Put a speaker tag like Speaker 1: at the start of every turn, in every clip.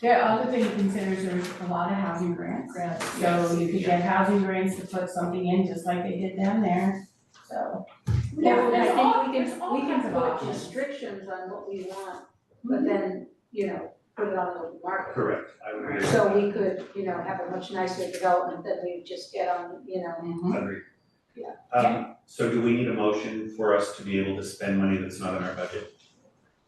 Speaker 1: The other thing to consider is there's a lot of housing grants,
Speaker 2: grants.
Speaker 1: so you could get housing grants to put something in, just like they did down there, so.
Speaker 3: Yeah, and
Speaker 1: there's
Speaker 3: I
Speaker 1: all-
Speaker 3: think we
Speaker 1: there's
Speaker 3: can, Mm-hmm.
Speaker 1: all
Speaker 3: we can
Speaker 1: kinds of
Speaker 3: put
Speaker 1: options.
Speaker 3: restrictions on what we want, but then, you know, put it on the open market.
Speaker 4: Correct, I would agree.
Speaker 3: So we could, you know, have a much nicer development than we just get on, you know,
Speaker 1: Mhm.
Speaker 4: Agree.
Speaker 3: Yeah.
Speaker 4: Um, so do we need a motion for us to be able to spend money that's not in our budget?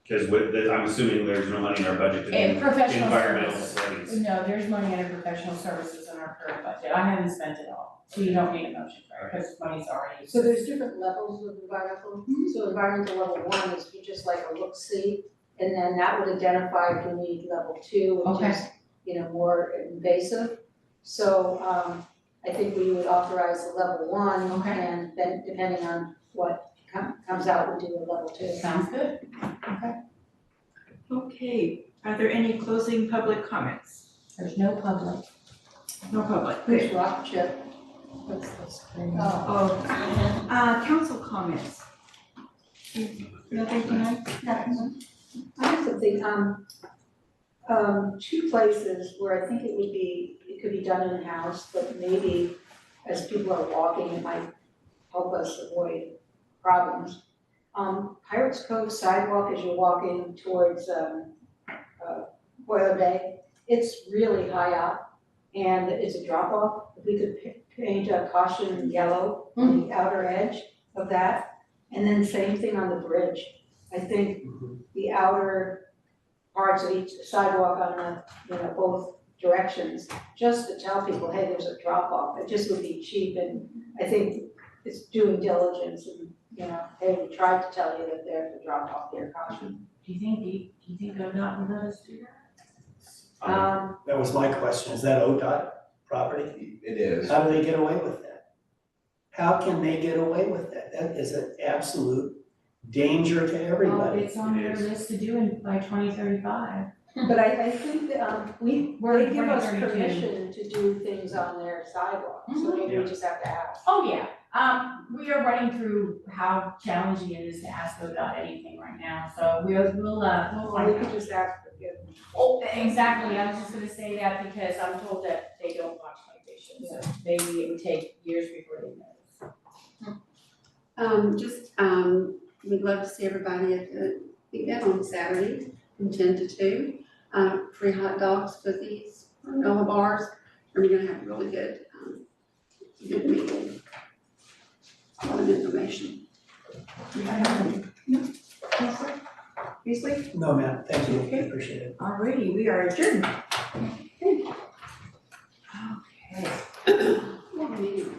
Speaker 4: Cause with, that- I'm assuming there's no money in our budget to do
Speaker 1: And professional
Speaker 4: environmental
Speaker 1: services,
Speaker 4: studies.
Speaker 1: no, there's money under professional services in our current budget, I haven't spent it all, so you don't need a motion for it, because money's already.
Speaker 3: so there's different levels of environmental.
Speaker 1: Mhm.
Speaker 3: So environmental level one is you just like a look see, and then that would identify if you need level two, which
Speaker 1: Okay.
Speaker 3: is, you know, more invasive. So um I think we would authorize a level one
Speaker 1: Okay.
Speaker 3: and then depending on what com- comes out, we do a level two.
Speaker 1: Sounds good.
Speaker 2: Okay, are there any closing public comments?
Speaker 1: There's no public.
Speaker 2: No public,
Speaker 3: Chris Rock, Chip. What's this? Oh.
Speaker 2: Oh, uh, council comments. Nothing tonight?
Speaker 3: I have something, um, um, two places where I think it would be, it could be done in-house, but maybe as people are walking, it might help us avoid problems. Um, Pirates Cove sidewalk as you're walking towards, um, uh, Boiler Bay, it's really high up and it's a drop off. If we could pa- paint a caution yellow on the outer edge of that, and then same thing on the bridge. I think the outer parts of each sidewalk on the, you know, both directions, just to tell people, hey, there's a drop off, it just would be cheap and I think it's doing diligence and, you know, hey, we tried to tell you that there's a drop off there, caution.
Speaker 1: Do you think, do you, do you think ODOT will let us do that?
Speaker 4: Um,
Speaker 3: Um,
Speaker 5: That was my question, is that ODOT property?
Speaker 6: It is.
Speaker 5: How do they get away with that? How can they get away with that? That is an absolute danger to
Speaker 1: Oh,
Speaker 5: everybody.
Speaker 1: it's on their
Speaker 4: It is.
Speaker 1: list to do in by twenty thirty-five.
Speaker 3: but I, I think that, um, we,
Speaker 1: We're
Speaker 3: they give us
Speaker 1: 2032.
Speaker 3: permission Mm-hmm. to do things on their sidewalk, so
Speaker 1: Mhm.
Speaker 3: maybe we just have to ask.
Speaker 1: Oh, yeah, um, we are running through how challenging it is to ask ODOT anything right now, so we'll, we'll, uh, we'll
Speaker 3: Or we
Speaker 1: find
Speaker 3: could
Speaker 1: out.
Speaker 3: just ask for forgiveness.
Speaker 1: Oh, exactly, I was just gonna say that because I'm told that they don't watch migration, so maybe it would take years before they notice.
Speaker 7: Um, just, um, we'd love to see everybody at the event on Saturday from ten to two. Uh, free hot dogs, cookies, granola bars, and we're gonna have a really good, um, good meal. A lot of information.
Speaker 2: Beasley?
Speaker 5: No, ma'am, thank you, I appreciate it.
Speaker 2: Alrighty, we are adjourned. Okay.
Speaker 7: Yeah, meeting.